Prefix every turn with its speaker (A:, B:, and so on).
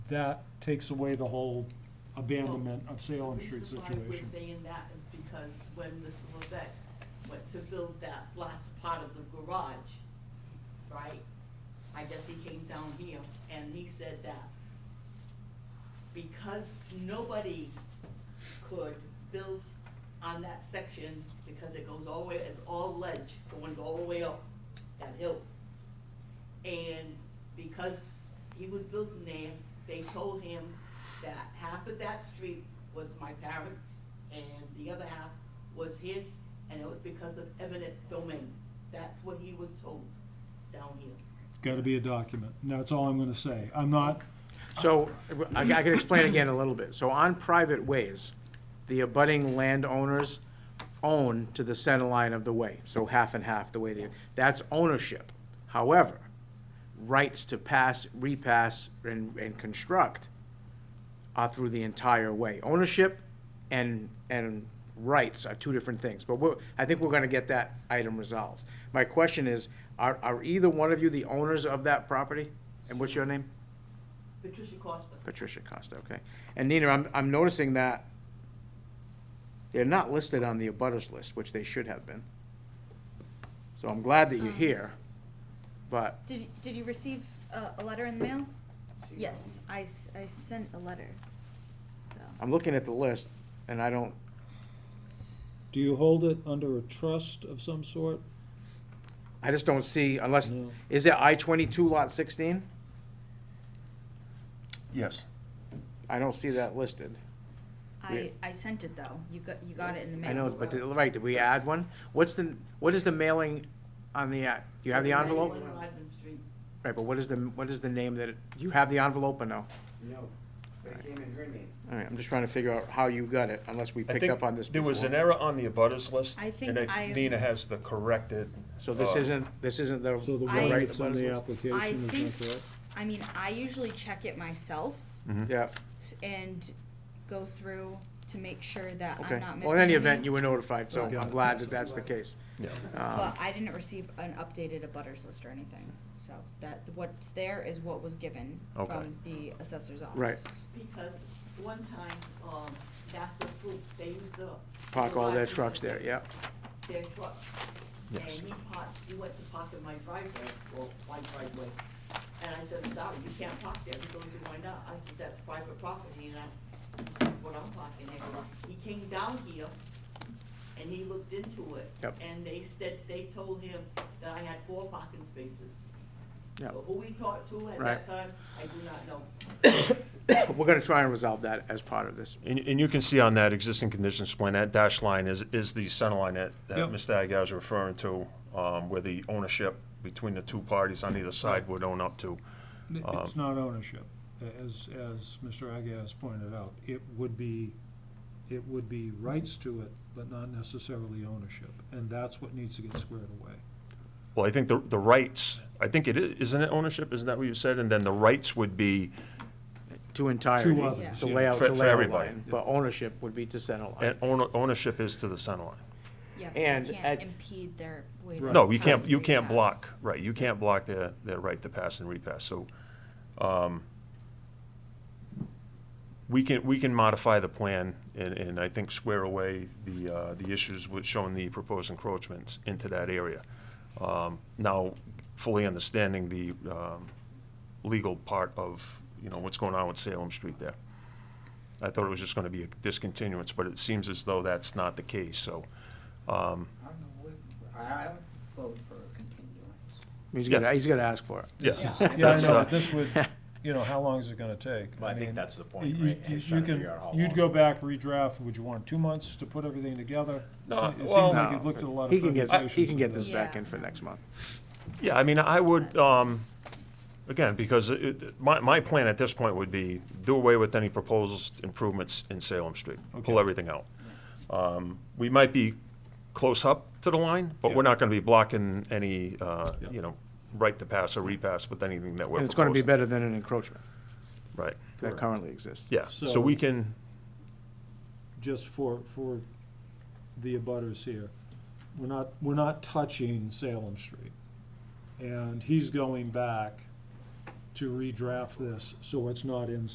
A: that takes away the whole abandonment of Salem Street
B: The reason
A: situation.
B: why we're saying that is because when Mr. Levesque went to build that last part of the garage, right? I guess he came down here and he said that because nobody could build on that section because it goes all the way, it's all ledge going all the way up that hill. And because he was building there, they told him that half of that street was my parents' and the other half was his, and it was because of eminent domain. That's what he was told down here.
A: Gotta be a document, and that's all I'm gonna say. I'm not,
C: So, I I can explain again a little bit. So on private ways, the abutting landowners own to the center line of the way, so half and half the way they, that's ownership. However, rights to pass, repass, and, and construct are through the entire way. Ownership and, and rights are two different things, but we're, I think we're gonna get that item resolved. My question is, are, are either one of you the owners of that property? And what's your name?
B: Patricia Costa.
C: Patricia Costa, okay. And Nina, I'm, I'm noticing that they're not listed on the abutters list, which they should have been. So I'm glad that
D: Um.
C: you're here, but,
D: Did, did you receive a, a letter in the mail? Yes, I, s- I sent a letter. though.
C: I'm looking at the list, and I don't,
A: do you hold it under a trust of some sort?
C: I just don't see, unless,
A: No.
C: is it I twenty-two lot sixteen?
E: Yes.
C: I don't see that listed. Yeah.
D: I, I sent it though. You got, you got it in the mail.
C: I know, but, did- right, did we add one? What's the, what is the mailing on the, uh, do you have the envelope?
B: 791 Rodman Street.
C: Right, but what is the, what is the name that, it- do you have the envelope or no?
F: No, but it came in her name.
C: All right, I'm just trying to figure out how you got it, unless we
E: I
C: picked
E: think
C: up on this
E: There was
C: before.
E: an error on the abutters list.
D: I think
E: and
D: I-
E: Nina has the corrected.
C: So this
E: uh,
C: isn't, this isn't the.
A: So the
D: I-
A: one
C: right
A: that's on the
C: buttons?
D: I
A: application
D: think,
A: is not correct?
D: I mean, I usually check it myself
C: Yeah,
D: s- and go through to make sure that I'm
C: okay.
D: not missing.
C: Well, in any event,
D: any,
C: you were notified, so
A: Right.
C: I'm glad that that's the case.
E: Yeah.
C: Um,
D: But I didn't receive an updated abutters list or anything, so that, what's there is what was given
E: Okay.
D: from the assessor's office.
C: Right.
B: Because one time, um, that's the food, they used to.
C: Park all their
B: drive
C: trucks there,
B: their-
C: yeah.
B: Their trucks.
E: Yes.
B: And he parked, he went to park in my driveway, well, my driveway. And I said, sorry, you can't park there. He goes, why not? I said, that's private property, and I, this is what I'm parking at. He came down here and he looked into it.
C: Yep.
B: And they said, they told him that I had four parking spaces.
C: Yep.
B: So who we talked to at that
C: Right.
B: time, I do not know.
C: We're gonna try and resolve that as part of this.
E: And, and you can see on that existing conditions plan, that dash line is, is the center line that, that
A: Yep.
E: Mr. Aguirre is referring to, um, where the ownership between the two parties on either side would own up to.
G: Um,
A: It's not ownership, as, as Mr. Agas pointed out. It would be, it would be rights to it, but not necessarily ownership, and that's what needs to get squared away.
E: Well, I think the, the rights, I think it is, isn't it ownership? Isn't that what you said? And then the rights would be,
C: To entirety,
A: Two others,
C: to
A: yeah.
C: layout,
E: For-
C: to
E: for
C: layout
E: everybody.
C: line, but ownership would be to center line.
E: and owner- ownership is to the center line.
D: Yeah, but
C: And
D: you
C: at-
D: can't impede their way to.
E: No, you can't,
D: pass
E: you
D: and
E: can't
D: repass.
E: block, right, you can't block their, their right to pass and repass, so, um, we can, we can modify the plan and, and I think square away the, uh, the issues with showing the proposed encroachments into that area. Um, now, fully understanding the, um, legal part of, you know, what's going on with Salem Street there. I thought it was just gonna be a discontinuance, but it seems as though that's not the case, so, um,
F: I don't know what, I vote for a continuance.
C: He's gonna, he's gonna ask for it.
E: yeah.
A: Yeah, I
E: That's,
A: know,
E: uh,
A: but this would, you know, how long is it gonna take?
G: Well, I
A: mean,
G: think that's the point,
A: you-
G: right?
A: you-
G: He's
A: You
G: trying to
A: can,
G: figure out how
A: you'd
G: long.
A: go back, redraft, would you want two months to put everything together?
E: No,
A: Se- It seems
E: well-
A: like you've looked at a lot of
C: He can get,
A: permutations.
C: he can
A: to
C: get this
D: this.
C: back
D: Yeah.
C: in for next month.
E: Yeah, I mean, I would, um, again, because it, my, my plan at this point would be do away with any proposals, improvements in Salem Street.
A: Okay.
E: Pull everything out. Um, we might be close up to the line, but
A: Yeah.
E: we're not gonna be blocking any, uh,
A: Yeah.
E: you know, right to pass or repass with anything that we're
C: And
E: proposing.
C: it's gonna be better than an encroachment
E: Right,
C: that currently exists.
E: yeah, so
A: So-
E: we can,
A: just for, for the abutters here, we're not, we're not touching Salem Street. And he's going back to redraft this, so it's not in